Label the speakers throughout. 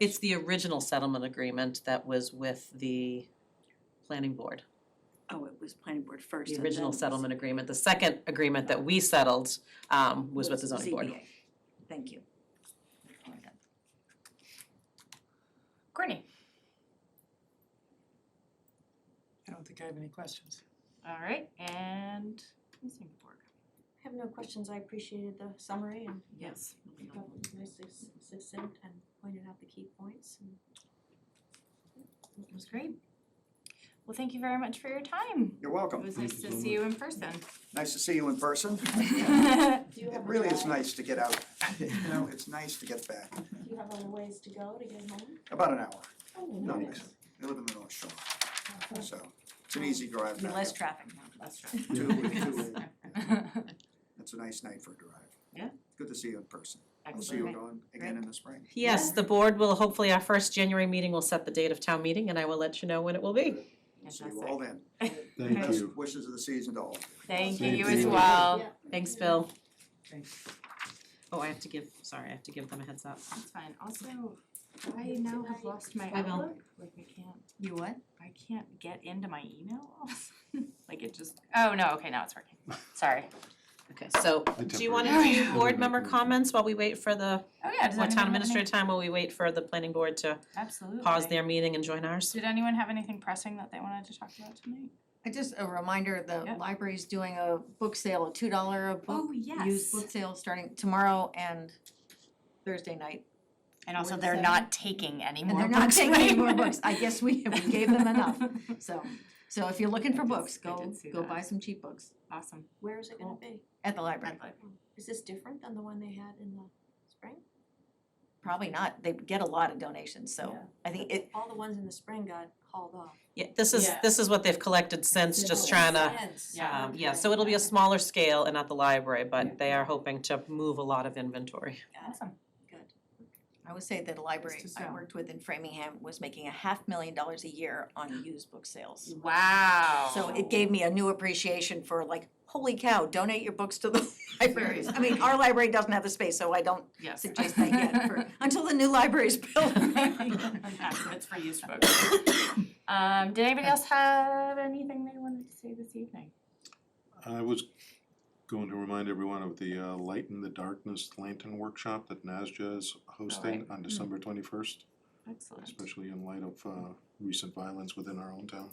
Speaker 1: It's the original settlement agreement that was with the planning board,
Speaker 2: Oh, it was planning board first
Speaker 1: the
Speaker 2: and then
Speaker 1: original
Speaker 2: it was
Speaker 1: settlement agreement. The second agreement that we settled um was with the zoning board.
Speaker 2: ZBA. Thank you. All right.
Speaker 3: Courtney.
Speaker 4: I don't think I have any questions.
Speaker 3: All right, and Ms. Ingeborg.
Speaker 5: I have no questions, I appreciated the summary and
Speaker 3: Yes.
Speaker 5: that was nicely s- succinct and pointed out the key points and
Speaker 3: That was great. Well, thank you very much for your time.
Speaker 6: You're
Speaker 3: It
Speaker 6: welcome.
Speaker 3: was nice to see you in person.
Speaker 6: Nice to see you in person.
Speaker 5: do you
Speaker 6: It
Speaker 5: have a
Speaker 6: really is
Speaker 5: drive?
Speaker 6: nice to get out. You know, it's nice to get back.
Speaker 5: Do you have a ways to go to get home?
Speaker 6: About an hour.
Speaker 5: Oh,
Speaker 6: No,
Speaker 5: nice.
Speaker 6: I live in the North Shore, so it's an easy drive
Speaker 2: Be
Speaker 6: back
Speaker 2: less
Speaker 6: up.
Speaker 2: traffic now.
Speaker 3: That's right.
Speaker 6: Two, two, it's a nice night for a drive.
Speaker 3: Yeah.
Speaker 6: Good to see you in person. I'll see you
Speaker 3: Excellent.
Speaker 6: again, again in the spring.
Speaker 1: Yes, the board will, hopefully our first January meeting will set the date of town meeting and I will let you know when it will be.
Speaker 6: See you all then.
Speaker 7: Thank
Speaker 6: Best
Speaker 7: you.
Speaker 6: wishes of the season to all. of you.
Speaker 3: Thank you,
Speaker 7: Thank
Speaker 3: you as
Speaker 7: you.
Speaker 3: well.
Speaker 5: Yeah.
Speaker 1: Thanks, Bill.
Speaker 4: Thanks.
Speaker 1: Oh, I have to give, sorry, I have to give them a heads up.
Speaker 3: That's fine. Also, I now have lost my
Speaker 1: Bill.
Speaker 3: outlook. Like I can't,
Speaker 2: You what?
Speaker 3: I can't get into my email. all of a sudden. Like it just, oh no, okay, now it's working. Sorry.
Speaker 1: Okay, so
Speaker 7: I
Speaker 1: do you wanna
Speaker 3: temporarily-
Speaker 1: do board member
Speaker 7: Temporarily.
Speaker 1: comments while we wait for the,
Speaker 3: Oh yeah, does anyone
Speaker 1: or
Speaker 3: have
Speaker 1: town
Speaker 3: any-
Speaker 1: administrator time while we wait for the planning board to
Speaker 3: Absolutely.
Speaker 1: pause their meeting and join ours?
Speaker 3: Did anyone have anything pressing that they wanted to talk about tonight?
Speaker 8: I Just a reminder, the
Speaker 3: Yep.
Speaker 8: library's doing a book sale, a two dollar a book,
Speaker 3: Oh,
Speaker 8: used book sale starting tomorrow and Thursday night.
Speaker 3: And also,
Speaker 8: With
Speaker 3: they're
Speaker 8: seven.
Speaker 3: not taking any
Speaker 8: And
Speaker 3: more
Speaker 8: they're not
Speaker 3: books
Speaker 8: taking any
Speaker 3: right
Speaker 8: more
Speaker 3: now.
Speaker 8: books, I guess we, we gave them enough, so, so if you're looking
Speaker 3: I
Speaker 8: for
Speaker 3: did-
Speaker 8: books,
Speaker 3: I
Speaker 8: go,
Speaker 3: did see
Speaker 8: go
Speaker 3: that.
Speaker 8: buy some cheap books
Speaker 3: Awesome.
Speaker 5: Where is it gonna
Speaker 3: Cool.
Speaker 5: be?
Speaker 8: at the library.
Speaker 5: Is this different than the one they had in the spring?
Speaker 8: Probably not, they get a lot of donations, so
Speaker 3: Yeah.
Speaker 8: I think it,
Speaker 5: All the ones in the spring got hauled off.
Speaker 1: Yeah, this is,
Speaker 3: Yeah.
Speaker 1: this is what they've collected since, just trying to,
Speaker 5: Sense.
Speaker 3: Yeah.
Speaker 1: um, yeah, so it'll be a smaller scale and at the library, but they are hoping to move a lot of inventory.
Speaker 5: Got it,
Speaker 3: Awesome.
Speaker 5: good.
Speaker 8: I would say that a library
Speaker 4: to
Speaker 8: I
Speaker 4: sell.
Speaker 8: worked with in Framingham was making a half million dollars a year on used book sales.
Speaker 3: Wow.
Speaker 8: So it gave me a new appreciation for like, holy cow, donate your books to the libraries. I mean, our library doesn't have the space, so I don't
Speaker 3: Yes.
Speaker 8: suggest that yet for, until the new library is built.
Speaker 3: That's for used books. Um, did anybody else have anything they wanted to say this evening?
Speaker 7: I was going to remind everyone of the uh, Light in the Darkness Lantern Workshop that NASJA is hosting
Speaker 3: Mm.
Speaker 7: on December twenty-first,
Speaker 3: Excellent.
Speaker 7: especially in light of uh, recent violence within our own town.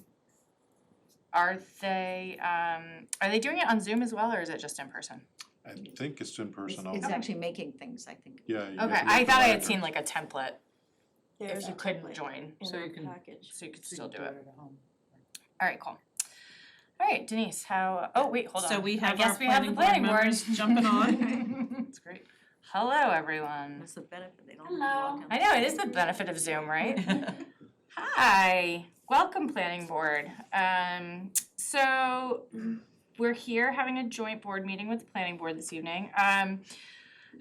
Speaker 3: Are they, um, are they doing it on Zoom as well, or is it just in person?
Speaker 7: I think it's in
Speaker 8: It's
Speaker 7: person only.
Speaker 8: it's actually making things, I think.
Speaker 7: Yeah. you have
Speaker 3: Okay,
Speaker 7: to
Speaker 3: I
Speaker 7: get the
Speaker 3: thought I
Speaker 7: library.
Speaker 3: had seen like a template
Speaker 5: There's
Speaker 3: if
Speaker 5: a
Speaker 3: you couldn't
Speaker 5: template
Speaker 3: join,
Speaker 4: So you
Speaker 5: in
Speaker 4: can-
Speaker 5: our package.
Speaker 3: so you could still do it.
Speaker 4: at home.
Speaker 3: All right, cool. All right, Denise, how, oh, wait, hold on.
Speaker 1: So we
Speaker 3: I
Speaker 1: have
Speaker 3: guess
Speaker 1: our
Speaker 3: we have the
Speaker 1: planning board
Speaker 3: planning board.
Speaker 1: members jumping on.
Speaker 3: It's great. Hello, everyone.
Speaker 8: That's the benefit, they don't have to walk down
Speaker 3: I
Speaker 8: the
Speaker 3: know, it
Speaker 8: street.
Speaker 3: is the benefit of Zoom, right? Hi, welcome planning board. Um, so we're here having a joint board meeting with the planning board this evening. Um,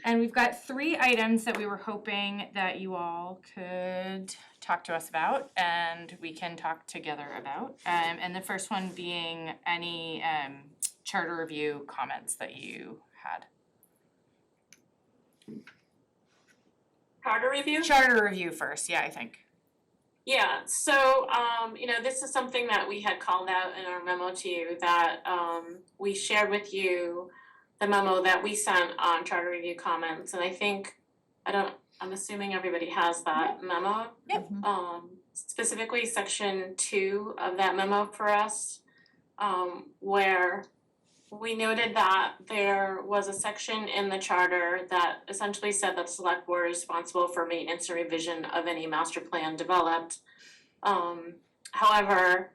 Speaker 3: and we've got three items that we were hoping that you all could talk to us about and we can talk together about. Um, and the first one being any um charter review comments that you had.
Speaker 9: charter review?
Speaker 3: Charter review first, yeah, I think.
Speaker 9: Yeah, so, um, you know, this is something that we had called out in our memo to you that, um, we shared with you the memo that we sent on charter review comments, and I think, I don't, I'm assuming everybody has that memo.
Speaker 8: Mm-hmm.
Speaker 3: Yep.
Speaker 9: Um, specifically section two of that memo for us, um, where we noted that there was a section in the charter that essentially said that select board is responsible for maintenance and revision of any master plan developed. Um, however,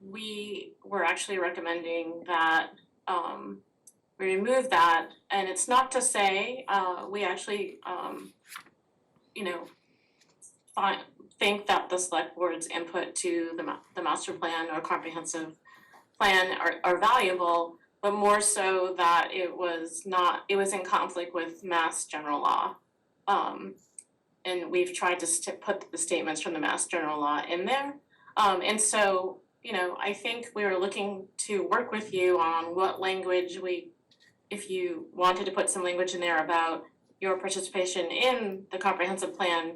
Speaker 9: we were actually recommending that, um, we remove that, and it's not to say, uh, we actually, um, you know, fi- think that the select board's input to the ma- the master plan or comprehensive plan are are valuable, but more so that it was not, it was in conflict with mass general law. Um, and we've tried to st- put the statements from the mass general law in there. Um, and so, you know, I think we were looking to work with you on what language we, if you wanted to put some language in there about your participation in the comprehensive plan